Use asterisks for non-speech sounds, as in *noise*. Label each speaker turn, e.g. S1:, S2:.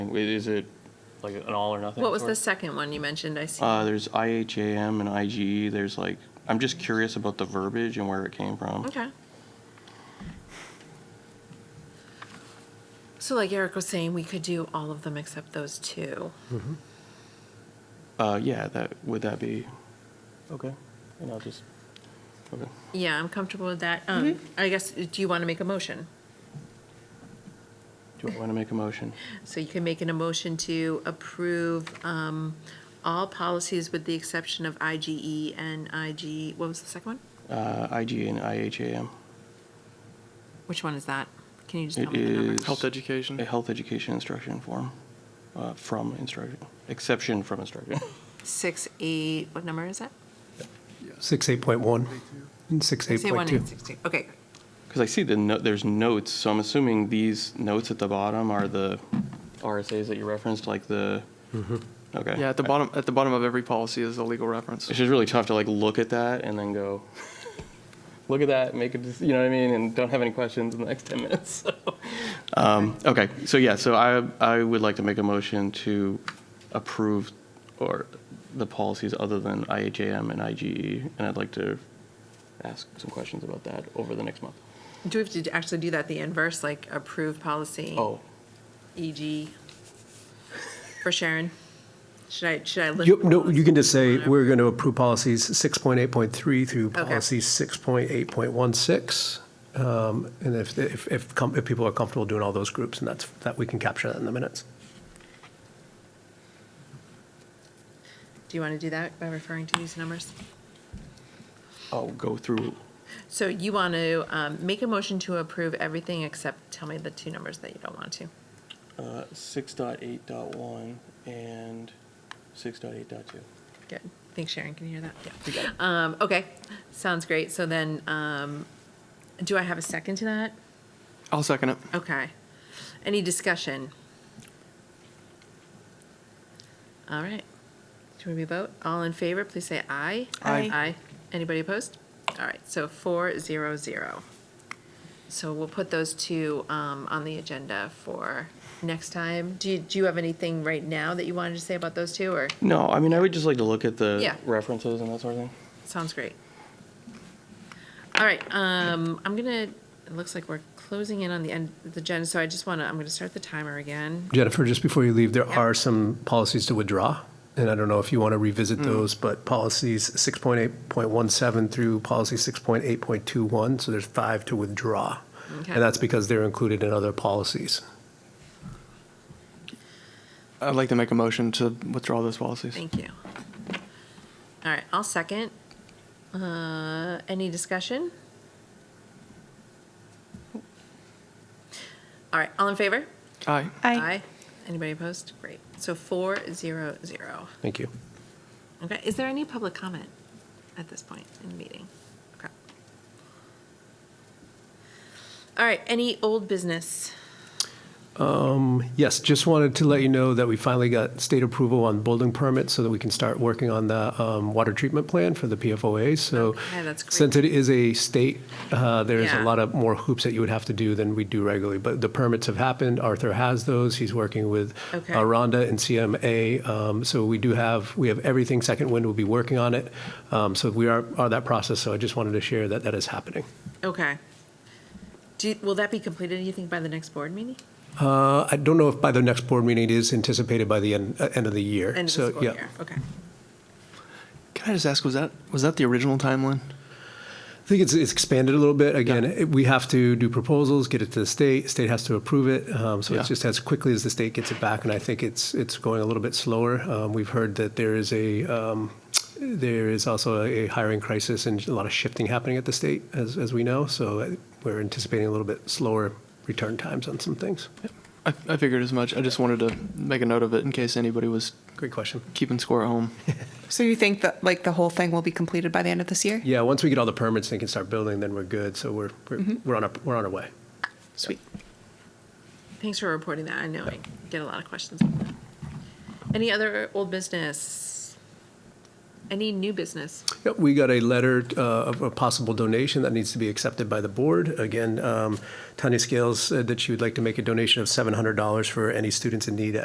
S1: Is it,
S2: Like an all or nothing?
S3: What was
S2: sort?
S3: the second one you mentioned? I see.
S1: uh, there's IHAM and IGE, there's like, I'm just curious about the verbiage and where it came from.
S3: Okay. So like Eric was saying, we could do all of them except those two.
S1: Uh, yeah, that, would that be, okay, and I'll just, okay.
S3: Yeah, I'm comfortable with that. Um,
S1: Mm-hmm.
S3: I guess, do you want to make a motion?
S1: Do I want to make a motion?
S3: So you can make an emotion to approve um, all policies with the exception of IGE and IG, what was the second one?
S1: Uh, IGA and IHAM.
S3: Which one is that? Can you just tell
S1: It
S3: me the number?
S1: is.
S4: Health education.
S1: A health education instruction form, uh, from instruction, exception from *laughs* instruction.
S3: Six, eight, what number is that?
S5: 6.8.1 and
S3: Say one, eight,
S5: 6.8.2.
S3: six, two. Okay,
S1: Because I see the, no- there's notes, so I'm assuming these notes at the bottom are the RSAs that you referenced, like the, okay.
S4: Yeah, at the bottom, at the bottom of every policy is a legal reference.
S1: It's just really tough to like look at that and then go, look at that, make a, dec- you know what I mean, and don't have any questions in the next 10 minutes, *laughs* so. Um, Okay, so yeah, so I, I would like to make a motion to approve or the policies other than IHAM and IGE, and I'd like to ask some questions about that over the next month.
S3: do we have to actually do that the inverse, like approve policy?
S1: Oh,
S3: EG for Sharon? Should I, should I list?
S5: You- No, you can just say,
S3: policies?
S5: we're going to approve policies 6.8.3 through
S3: Okay.
S5: policy 6.8.16. Um, And if, if, if com- if people are comfortable doing all those groups, and that's, that, we can capture that in the minutes.
S3: Do you want to do that by referring to these numbers?
S1: I'll go through,
S3: So you want to um, make a motion to approve everything except, tell me the two numbers that you don't want to.
S1: uh, 6.8.1 and 6.8.2.
S3: Good. I think Sharon can hear that. Yeah. Um, Okay, sounds great. So then, um, do I have a second to that?
S4: I'll second it.
S3: Okay. Any discussion? All right. Do we vote? All in favor, please say aye.
S4: Aye.
S3: Aye. Anybody opposed? All right, so four, zero, zero. So we'll put those two um, on the agenda for next time. Do you, do you have anything right now that you wanted to say about those two, or?
S1: No, I mean, I would just like to look at the
S3: Yeah.
S1: references and that sort of thing.
S3: Sounds great. All right, um, I'm gonna, it looks like we're closing in on the end of the agenda, so I just wanna, I'm gonna start the timer again.
S5: Jennifer, just before you leave, there
S3: Yeah.
S5: are some policies to withdraw, and I don't know if you want to
S3: Hmm.
S5: revisit those, but policies 6.8.17 through policy 6.8.21, so there's five to withdraw.
S3: Okay.
S5: And that's because they're included in other policies.
S4: I'd like to make a motion to withdraw those policies.
S3: Thank you. All right, I'll second. Uh, any discussion? All right, all in favor?
S4: Aye.
S3: Anybody opposed? Great. So four, zero, zero.
S5: Thank you.
S3: Okay, is there any public comment at this point in the meeting? Okay. All right, any old business?
S5: Yes, just wanted to let you know that we finally got state approval on building permits so that we can start working on the um, water treatment plan for the PFOA. So
S3: Okay, that's great.
S5: since it is a state, uh, there's a
S3: Yeah.
S5: lot of more hoops that you would have to do than we do regularly. But the permits have happened. Arthur has those. He's working with uh,
S3: Okay.
S5: Rhonda and CMA. Um, So we do have, we have everything. Second Wind will be working on it. Um, So we are, are that process. So I just wanted to share that that is happening.
S3: Okay. Do, will that be completed, do you think, by the next board meeting?
S5: Uh, I don't know if by the next board meeting, it is anticipated by the end, uh, end of the year.
S3: End of
S5: So,
S3: the school
S5: yeah.
S3: year, okay.
S4: Can I just ask, was that, was that the original timeline?
S5: I think it's, it's expanded a little bit. Again, it, we have to do proposals, get it to the state. State has to approve it. Um, so
S4: Yeah.
S5: it's just as quickly as the state gets it back, and I think it's it's going a little bit slower. Um, we've heard that there is a um, there is also a hiring crisis and a lot of shifting happening at the state, as as we know. So uh, we're anticipating a little bit slower return times on some things.
S4: I, I figured as much. I just wanted to make a note of it in case anybody was
S5: Great question.
S4: keeping score at home.
S6: So you think that like the whole thing will be completed by the end of this year?
S5: Yeah, once we get all the permits, they can start building. Then we're good. So we're we're, we're on our we're on our way.
S6: Sweet.
S3: Thanks for reporting that, I know I get a lot of questions on that. Any other old business? Any new business?
S5: Yep, we got a letter uh, of a possible donation that needs to be accepted by the board. Again, um, Tanya Scales said that she would like to make a donation of $700 for any students in need